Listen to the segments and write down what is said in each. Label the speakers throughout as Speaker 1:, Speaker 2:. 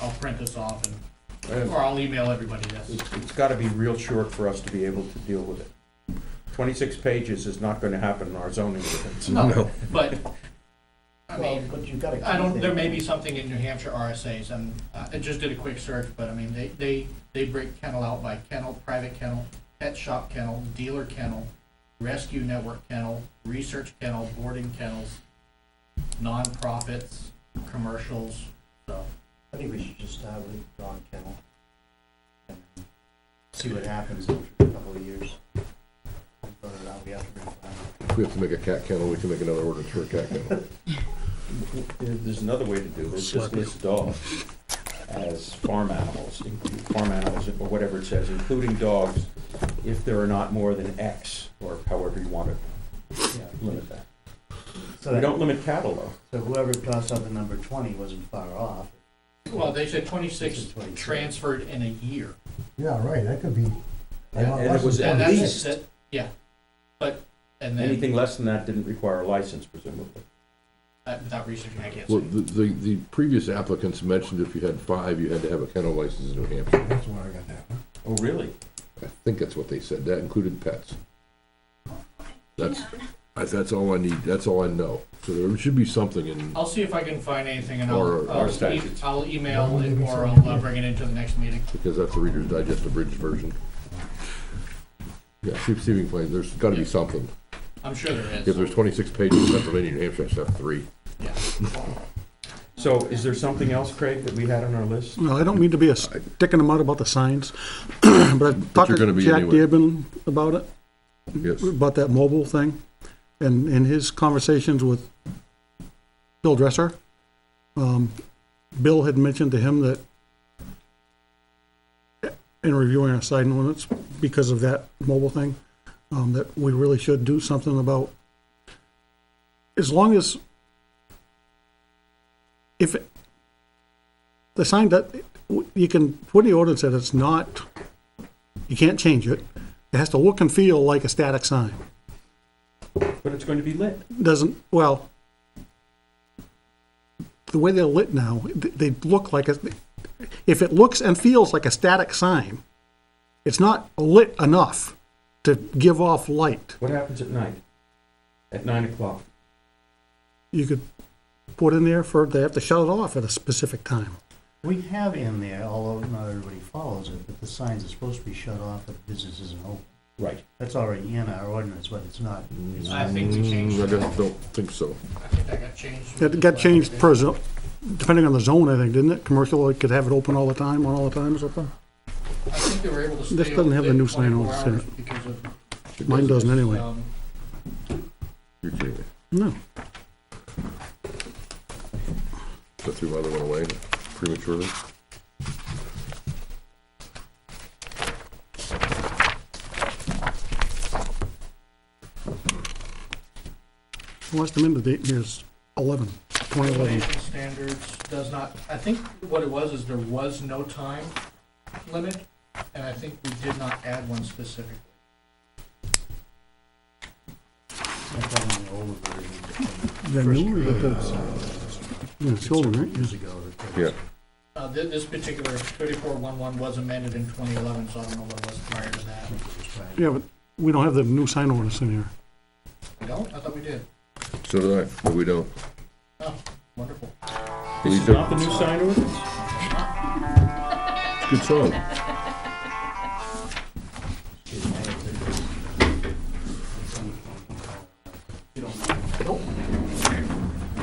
Speaker 1: I'll print this off and,
Speaker 2: Uh,
Speaker 1: or I'll email everybody this.
Speaker 2: It's, it's gotta be real short for us to be able to deal with it. Twenty-six pages is not gonna happen in our zoning ordinance.
Speaker 1: No. But, I
Speaker 3: Well,
Speaker 1: mean,
Speaker 3: but you've got to.
Speaker 1: I don't, there may be something in New Hampshire RSA's, and uh, I just did a quick search, but I mean, they, they, they break kennel out by kennel, private kennel, pet shop kennel, dealer kennel, rescue network kennel, research kennel, boarding kennels, nonprofits, commercials, so.
Speaker 3: I think we should just start with dog kennel. and See what happens in a couple of years. Throw it out, we have to bring it back.
Speaker 4: If we have to make a cat kennel, we can make another ordinance for a cat kennel.
Speaker 2: There- There's another way to do this, just list dogs as farm animals, in- farm animals, or whatever it says, including dogs, if there are not more than X, or however you want to limit that.
Speaker 3: So
Speaker 2: We
Speaker 3: that-
Speaker 2: don't limit cattle, though.
Speaker 3: so whoever tossed out the number twenty wasn't far off.
Speaker 1: Well, they said
Speaker 3: This
Speaker 1: twenty-six
Speaker 3: is 26.
Speaker 1: transferred in a year.
Speaker 5: Yeah, right, that could be. I
Speaker 2: And
Speaker 5: want
Speaker 2: and it
Speaker 5: lessons
Speaker 2: was at
Speaker 1: And that's-
Speaker 2: least,
Speaker 1: that- Yeah, but, and then,
Speaker 2: anything less than that didn't require a license presumably.
Speaker 1: uh, without researching, I can't
Speaker 4: Well,
Speaker 1: say.
Speaker 4: the, the, the previous applicants mentioned if you had five, you had to have a kennel license in New Hampshire.
Speaker 5: That's where I got that.
Speaker 2: Oh, really?
Speaker 4: I think that's what they said. That included pets. That's, I- that's all I need. That's all I know. So there should be something in,
Speaker 1: I'll see if I can find anything and
Speaker 4: Or-
Speaker 1: I'll,
Speaker 4: or
Speaker 1: I'll, e-
Speaker 2: statutes.
Speaker 1: I'll email
Speaker 5: Or
Speaker 1: it
Speaker 5: maybe
Speaker 1: or
Speaker 5: something.
Speaker 1: I'll uh, bring it into the next meeting.
Speaker 4: because that's the Reader's Digest abridged version. Yeah, receiving claims, there's gotta be something.
Speaker 1: I'm sure there
Speaker 4: If
Speaker 1: is.
Speaker 4: there's twenty-six pages in Pennsylvania, New Hampshire, I should have three.
Speaker 1: Yeah.
Speaker 2: So is there something else, Craig, that we had on our list?
Speaker 6: Well, I don't mean to be a stick in the mud about the signs, but I talked
Speaker 4: gonna
Speaker 6: to
Speaker 4: be
Speaker 6: Jack
Speaker 4: anyway.
Speaker 6: Dearborn about it,
Speaker 4: Yes.
Speaker 6: about that mobile thing, and in his conversations with Bill Dresser, um, Bill had mentioned to him that in reviewing our sign ordinance, because of that mobile thing, um, that we really should do something about, as long as if it- the sign that, you can put in the ordinance that it's not, you can't change it. It has to look and feel like a static sign.
Speaker 2: But it's going to be lit.
Speaker 6: Doesn't, well, the way they're lit now, th- they look like, a. if it looks and feels like a static sign, it's not lit enough to give off light.
Speaker 2: What happens at night? At nine o'clock?
Speaker 6: You could put in there for, they have to shut it off at a specific time.
Speaker 3: We have in there, although not everybody follows it, that the signs are supposed to be shut off if business isn't open.
Speaker 2: Right.
Speaker 3: That's already in our ordinance, but it's not. it's
Speaker 1: I
Speaker 3: not-
Speaker 1: think we changed
Speaker 4: Mm, I
Speaker 1: that.
Speaker 4: just don't think so.
Speaker 1: I think that got changed.
Speaker 6: It got changed per zone, depending on the zone, I think, didn't it? Commercial, it could have it open all the time, on all the time or something?
Speaker 1: I think they were able to stay.
Speaker 6: This doesn't
Speaker 1: open
Speaker 6: have the new sign
Speaker 1: 24
Speaker 6: on it, does
Speaker 1: hours because of,
Speaker 6: Mine doesn't anyway.
Speaker 1: um,
Speaker 4: You're kidding me.
Speaker 6: No.
Speaker 4: So I threw my other one away prematurely.
Speaker 6: Last amendment date here is 11, 2011.
Speaker 1: Conservation standards does not, I think what it was is there was no time limit, and I think we did not add one specifically.
Speaker 3: it's not done in the older version.
Speaker 6: The
Speaker 3: First
Speaker 6: newer,
Speaker 3: grade,
Speaker 6: that's-
Speaker 3: uh,
Speaker 6: Yeah, it's older, right?
Speaker 3: Years ago. that they-
Speaker 4: Yeah.
Speaker 1: Uh, thi- this particular thirty-four one-one was amended in twenty eleven, so I don't know what was prior to that.
Speaker 6: Yeah, but we don't have the new sign ordinance in here.
Speaker 1: We don't? I thought we did.
Speaker 4: So do I, but we don't.
Speaker 1: Oh, wonderful.
Speaker 4: We
Speaker 2: This is
Speaker 4: don't.
Speaker 2: not the new sign ordinance?
Speaker 4: Good song.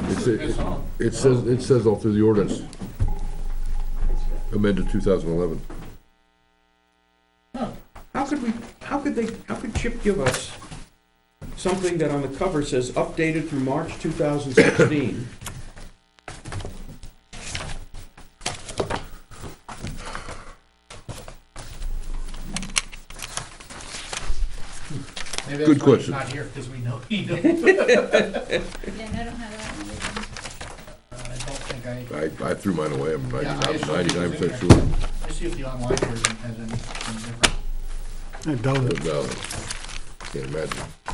Speaker 4: It's,
Speaker 1: Good
Speaker 4: it,
Speaker 1: song.
Speaker 4: it says, it says all through the ordinance, amended two thousand eleven.
Speaker 1: Huh.
Speaker 2: How could we, how could they, how could Chip give us something that on the cover says updated through March 2016?
Speaker 1: Maybe that's
Speaker 4: Good
Speaker 1: why he's
Speaker 4: question.
Speaker 1: not here, because we know he Uh, don't.
Speaker 7: Yeah, I don't have that one with me.
Speaker 1: Uh, I don't think I,
Speaker 4: I, I threw mine away, I'm
Speaker 1: Yeah, I assumed it was in
Speaker 4: ninety-nine percent sure.
Speaker 1: let's see if the online version has anything different.
Speaker 6: I doubt
Speaker 4: But
Speaker 6: it.
Speaker 4: no, Can't imagine.